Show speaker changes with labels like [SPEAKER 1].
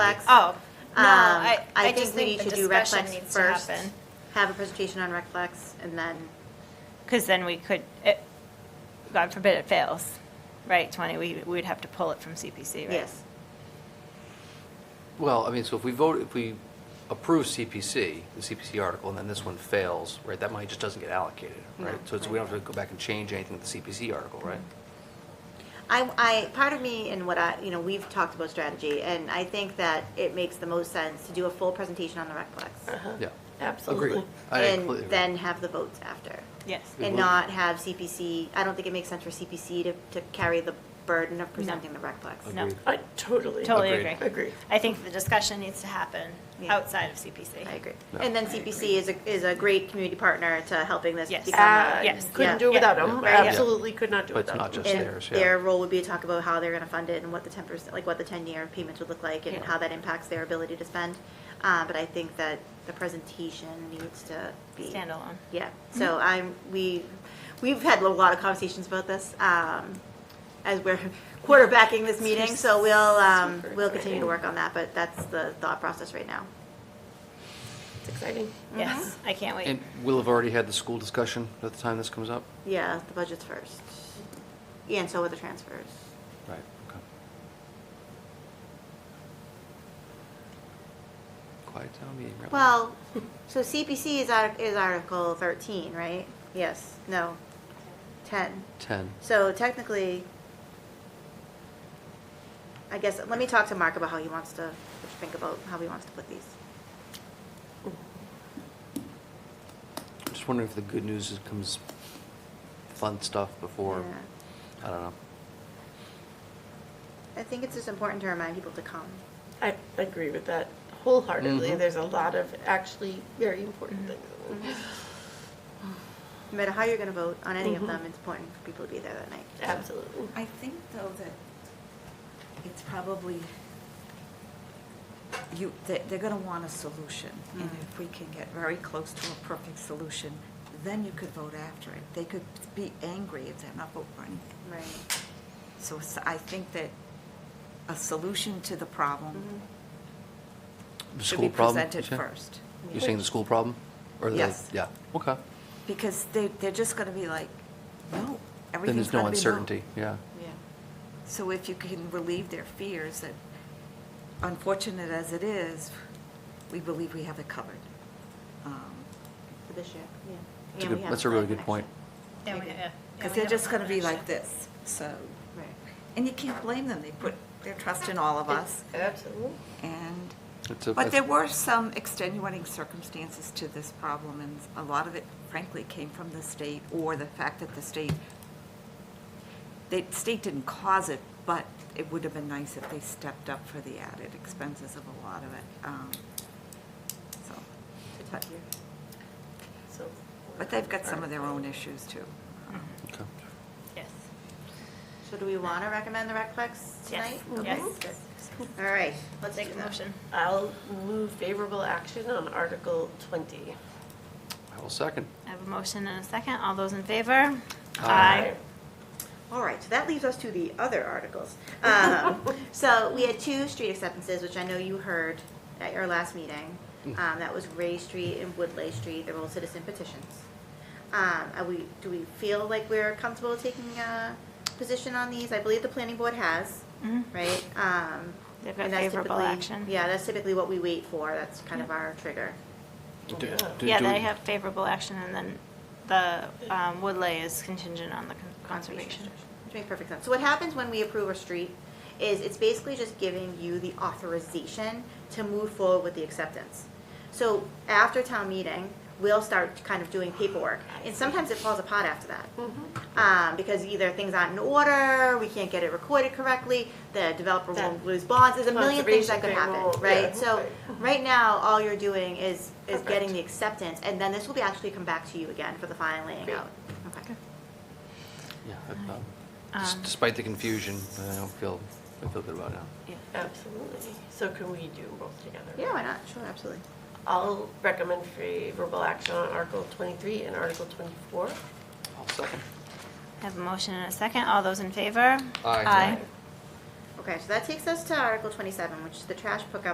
[SPEAKER 1] Flex.
[SPEAKER 2] Oh, no,
[SPEAKER 1] Um,
[SPEAKER 2] I, I
[SPEAKER 1] think
[SPEAKER 2] just
[SPEAKER 1] we need
[SPEAKER 2] think
[SPEAKER 1] to
[SPEAKER 2] the
[SPEAKER 1] do Rec
[SPEAKER 2] discussion
[SPEAKER 1] Flex
[SPEAKER 2] needs to
[SPEAKER 1] first.
[SPEAKER 2] happen.
[SPEAKER 1] Have a presentation on Rec Flex and then,
[SPEAKER 2] Because then we could, it- God forbid it fails, right, 20, we, we would have to pull it from CPC, right?
[SPEAKER 1] yes.
[SPEAKER 3] Well, I mean, so if we vote, if we approve CPC, the CPC article, and then this one fails, right, that money just doesn't get allocated, right?
[SPEAKER 1] No,
[SPEAKER 3] So it's, we don't have to go back and change anything with the CPC article, right?
[SPEAKER 1] I, I, part of me and what I, you know, we've talked about strategy and I think that it makes the most sense to do a full presentation on the Rec Flex.
[SPEAKER 3] Yeah.
[SPEAKER 4] Uh-huh. Absolutely.
[SPEAKER 3] Agreed. I
[SPEAKER 1] And
[SPEAKER 3] completely agree.
[SPEAKER 1] then have the votes after.
[SPEAKER 2] Yes.
[SPEAKER 3] It
[SPEAKER 1] And
[SPEAKER 3] would.
[SPEAKER 1] not have CPC, I don't think it makes sense for CPC to, to carry the burden of presenting the Rec Flex.
[SPEAKER 2] No,
[SPEAKER 3] Agreed.
[SPEAKER 4] I totally.
[SPEAKER 2] totally
[SPEAKER 3] Agreed.
[SPEAKER 2] agree.
[SPEAKER 4] Agree.
[SPEAKER 2] I think the discussion needs to happen
[SPEAKER 1] Yeah.
[SPEAKER 2] outside of CPC.
[SPEAKER 1] I agree.
[SPEAKER 3] No.
[SPEAKER 1] And then CPC is a, is a great community partner to helping this
[SPEAKER 2] Yes. Uh,
[SPEAKER 1] become.
[SPEAKER 4] Ah,
[SPEAKER 1] a-
[SPEAKER 2] Yes.
[SPEAKER 1] Yeah.
[SPEAKER 4] Couldn't do
[SPEAKER 2] Yeah.
[SPEAKER 4] it without them,
[SPEAKER 3] Yeah.
[SPEAKER 2] Right.
[SPEAKER 4] absolutely could not do it
[SPEAKER 3] But it's
[SPEAKER 4] without
[SPEAKER 3] not
[SPEAKER 4] them.
[SPEAKER 3] just
[SPEAKER 1] And
[SPEAKER 3] theirs, yeah.
[SPEAKER 1] their role would be to talk about how they're gonna fund it and what the ten percent, like what the ten-year payments would look like and
[SPEAKER 3] Yeah.
[SPEAKER 1] how that impacts their ability to spend. Uh, but I think that the presentation needs to be.
[SPEAKER 2] Standalone.
[SPEAKER 1] Yeah,
[SPEAKER 4] Mm-hmm.
[SPEAKER 1] so I'm, we, we've had a lot of conversations about this, um, as we're quarterbacking this meeting, so we'll, um,
[SPEAKER 4] Super
[SPEAKER 1] we'll continue to
[SPEAKER 4] exciting.
[SPEAKER 1] work on that, but that's the thought process right now.
[SPEAKER 4] It's exciting.
[SPEAKER 2] Yes, I can't wait.
[SPEAKER 3] And we'll have already had the school discussion at the time this comes up?
[SPEAKER 1] Yeah, the budget's first. Yeah, and so are the transfers.
[SPEAKER 3] Right, okay. Quiet town meeting, right?
[SPEAKER 1] Well, so CPC is art, is Article thirteen, right? Yes, no, ten.
[SPEAKER 3] 10.
[SPEAKER 1] So technically, I guess, let me talk to Mark about how he wants to, think about how he wants to put these.
[SPEAKER 3] Just wondering if the good news is- comes, fun stuff before, I don't know.
[SPEAKER 1] I think it's just important to remind people to come.
[SPEAKER 4] I agree with that wholeheartedly.
[SPEAKER 3] Mhm.
[SPEAKER 4] There's a lot of actually very important things.
[SPEAKER 5] Mm-hmm.
[SPEAKER 1] No matter how you're gonna vote on any of them, it's important for people to be there that night.
[SPEAKER 4] Absolutely.
[SPEAKER 5] I think though that it's probably, you, they- they're gonna want a solution. And if we can get very close to a perfect solution, then you could vote after it. They could be angry if they're not voting for anything.
[SPEAKER 1] Right.
[SPEAKER 5] So s- I think that a solution to the
[SPEAKER 1] Mm-hmm.
[SPEAKER 5] problem
[SPEAKER 3] The
[SPEAKER 5] should be
[SPEAKER 3] school problem? you
[SPEAKER 5] presented
[SPEAKER 3] say?
[SPEAKER 5] first.
[SPEAKER 3] You're saying the school problem? or the-
[SPEAKER 5] Yes.
[SPEAKER 3] Yeah, okay.
[SPEAKER 5] Because they, they're just gonna be like, no,
[SPEAKER 3] Then
[SPEAKER 5] everything's
[SPEAKER 3] there's no
[SPEAKER 5] gonna be
[SPEAKER 3] uncertainty, yeah.
[SPEAKER 5] So if you can relieve their fears, that unfortunate as it is, we believe we have it covered. Um,
[SPEAKER 1] For this year, yeah.
[SPEAKER 3] That's a
[SPEAKER 1] And
[SPEAKER 3] good-
[SPEAKER 1] we have
[SPEAKER 3] That's a
[SPEAKER 1] plan
[SPEAKER 3] really
[SPEAKER 1] for
[SPEAKER 3] good
[SPEAKER 1] next
[SPEAKER 3] point.
[SPEAKER 2] Yeah, we- yeah, yeah, we
[SPEAKER 5] Because they're
[SPEAKER 2] have
[SPEAKER 5] just
[SPEAKER 2] a
[SPEAKER 5] going to be
[SPEAKER 2] plan.
[SPEAKER 5] like this, so,
[SPEAKER 1] year. Right.
[SPEAKER 5] and you can't blame them, they put their trust in all of us,
[SPEAKER 4] Absolutely.
[SPEAKER 5] and,
[SPEAKER 3] It's a-
[SPEAKER 5] but there were some extenuating circumstances to this problem, and a lot of it frankly came from the state, or the fact that the state, the state didn't cause it, but it would have been nice if they stepped up for the added expenses of a lot of it, um, so. but-
[SPEAKER 4] So-
[SPEAKER 5] But they've got some of their own issues too.
[SPEAKER 3] Okay.
[SPEAKER 2] Yes,
[SPEAKER 1] So do we wanna recommend the rec flex tonight?
[SPEAKER 2] yes,
[SPEAKER 1] Okay.
[SPEAKER 2] yes.
[SPEAKER 1] All right,
[SPEAKER 2] Let's
[SPEAKER 1] let's
[SPEAKER 2] take
[SPEAKER 1] do
[SPEAKER 2] a
[SPEAKER 1] that.
[SPEAKER 2] motion.
[SPEAKER 4] I'll move favorable action on Article 20.
[SPEAKER 3] I will second.
[SPEAKER 2] I have a motion and a second. All those in favor?
[SPEAKER 3] Aye.
[SPEAKER 1] All right, so that leaves us to the other articles. Um, So we had two street acceptances, which I know you heard at your last meeting.
[SPEAKER 2] Mm.
[SPEAKER 1] Um, That was Ray Street and Woodley Street, they're both citizen petitions. Um, Are we, do we feel like we're comfortable taking a position on these? I believe the planning board has,
[SPEAKER 2] Mhm.
[SPEAKER 1] right? Um,
[SPEAKER 2] They've got
[SPEAKER 1] and that's
[SPEAKER 2] favorable
[SPEAKER 1] typically-
[SPEAKER 2] action.
[SPEAKER 1] Yeah, that's typically what we wait for, that's kind of
[SPEAKER 2] Yep.
[SPEAKER 1] our trigger.
[SPEAKER 3] Do- do-
[SPEAKER 2] Yeah,
[SPEAKER 3] do-
[SPEAKER 2] they have favorable action, and then the um, Woodley is contingent on the con- conservation.
[SPEAKER 1] Which makes perfect sense. So what happens when we approve a street is it's basically just giving you the authorization to move forward with the acceptance. So after town meeting, we'll start kind of doing paperwork. And sometimes it falls apart after that.
[SPEAKER 4] Mm-hmm.
[SPEAKER 1] Um, because either things aren't in order, we can't get it recorded correctly, the developer will
[SPEAKER 4] That-
[SPEAKER 1] lose bonds, there's a million things that could
[SPEAKER 4] Conservation
[SPEAKER 1] happen,
[SPEAKER 4] thing will- yeah,
[SPEAKER 1] right? So,
[SPEAKER 4] right.
[SPEAKER 1] right now, all you're doing is, is getting
[SPEAKER 4] Perfect.
[SPEAKER 1] the acceptance, and then this will be actually come back to you again for the final laying
[SPEAKER 4] Great.
[SPEAKER 1] out. Okay.
[SPEAKER 3] Yeah, I- um, des-
[SPEAKER 2] Um,
[SPEAKER 3] Despite the confusion, I don't feel, I feel good about it now.
[SPEAKER 2] Yeah.
[SPEAKER 4] Absolutely. So can we do both together?
[SPEAKER 1] Yeah, why not? Sure, absolutely.
[SPEAKER 4] I'll recommend favorable action on Article 23 and Article 24.
[SPEAKER 3] I'll second.
[SPEAKER 2] I have a motion and a second. All those in favor?
[SPEAKER 3] Aye.
[SPEAKER 2] Aye.
[SPEAKER 1] Okay, so that takes us to Article 27, which is the trash pickup